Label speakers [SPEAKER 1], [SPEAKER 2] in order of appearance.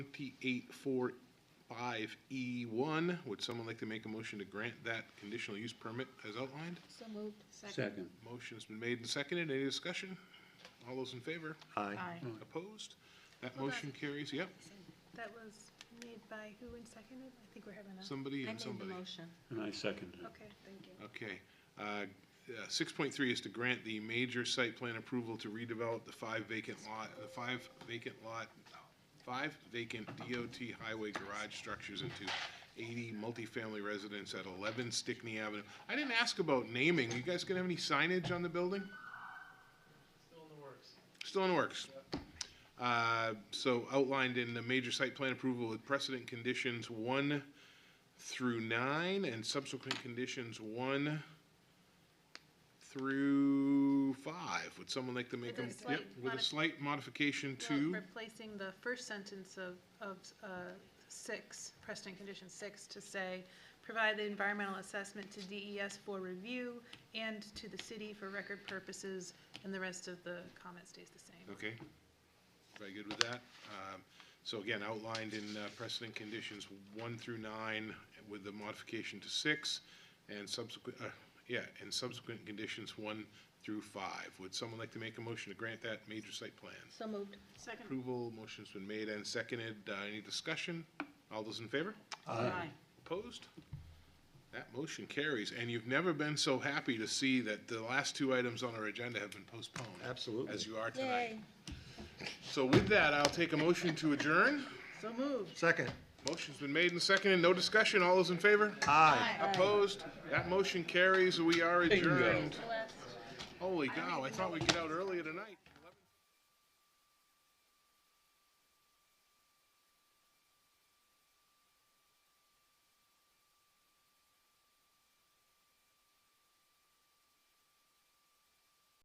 [SPEAKER 1] 2845E1. E Would someone like to make a motion to grant that conditional use permit as outlined?
[SPEAKER 2] So moved.
[SPEAKER 3] Second.
[SPEAKER 1] Motion's been made and seconded. Any discussion? All those in favor?
[SPEAKER 3] Aye.
[SPEAKER 2] Aye.
[SPEAKER 1] Mm. Opposed? That
[SPEAKER 4] Hold on.
[SPEAKER 1] motion carries. Yep,
[SPEAKER 4] That was made by who and seconded? I think we're having a,
[SPEAKER 1] somebody and
[SPEAKER 2] I made the
[SPEAKER 1] somebody.
[SPEAKER 2] motion.
[SPEAKER 3] And I second it.
[SPEAKER 4] okay, thank you.
[SPEAKER 1] Okay. Uh, uh, 6.3 is to grant the major site plan approval to redevelop the five vacant lot, the five vacant lot, five vacant DOT highway garage structures into 80 multifamily residents at 11 Stickney Avenue. I didn't ask about naming. You guys gonna have any signage on the building? Still in the works. Uh, So outlined in the major site plan approval with precedent conditions one through nine and subsequent conditions one through five. Would someone like to make them?
[SPEAKER 4] With a slight
[SPEAKER 1] With a
[SPEAKER 4] modif-
[SPEAKER 1] slight modification
[SPEAKER 4] No,
[SPEAKER 1] to,
[SPEAKER 4] Replacing the first sentence of, of uh, six, precedent condition six, to say, provide the environmental assessment to DES for review and to the city for record purposes, and the rest of the comment stays the same.
[SPEAKER 1] okay? Very good with that. Um, So again, outlined in uh, precedent conditions one through nine with the modification to six and subsequent, uh, yeah, and subsequent conditions one through five. Would someone like to make a motion to grant that major site plan?
[SPEAKER 2] So moved.
[SPEAKER 4] Second.
[SPEAKER 1] Approval, motion's been made and seconded. Uh, Any discussion? All those in favor?
[SPEAKER 2] Aye.
[SPEAKER 1] Opposed? That motion carries, and you've never been so happy to see that the last two items on our agenda have been postponed.
[SPEAKER 3] Absolutely.
[SPEAKER 1] As you are tonight.
[SPEAKER 2] Yay.
[SPEAKER 1] So with that, I'll take a motion to adjourn.
[SPEAKER 4] So moved.
[SPEAKER 3] Second.
[SPEAKER 1] Motion's been made and seconded, no discussion, all those in favor?
[SPEAKER 3] Aye.
[SPEAKER 1] Opposed? That motion carries, we are
[SPEAKER 3] Bingo.
[SPEAKER 1] adjourned. Holy cow, I thought we'd get out earlier tonight.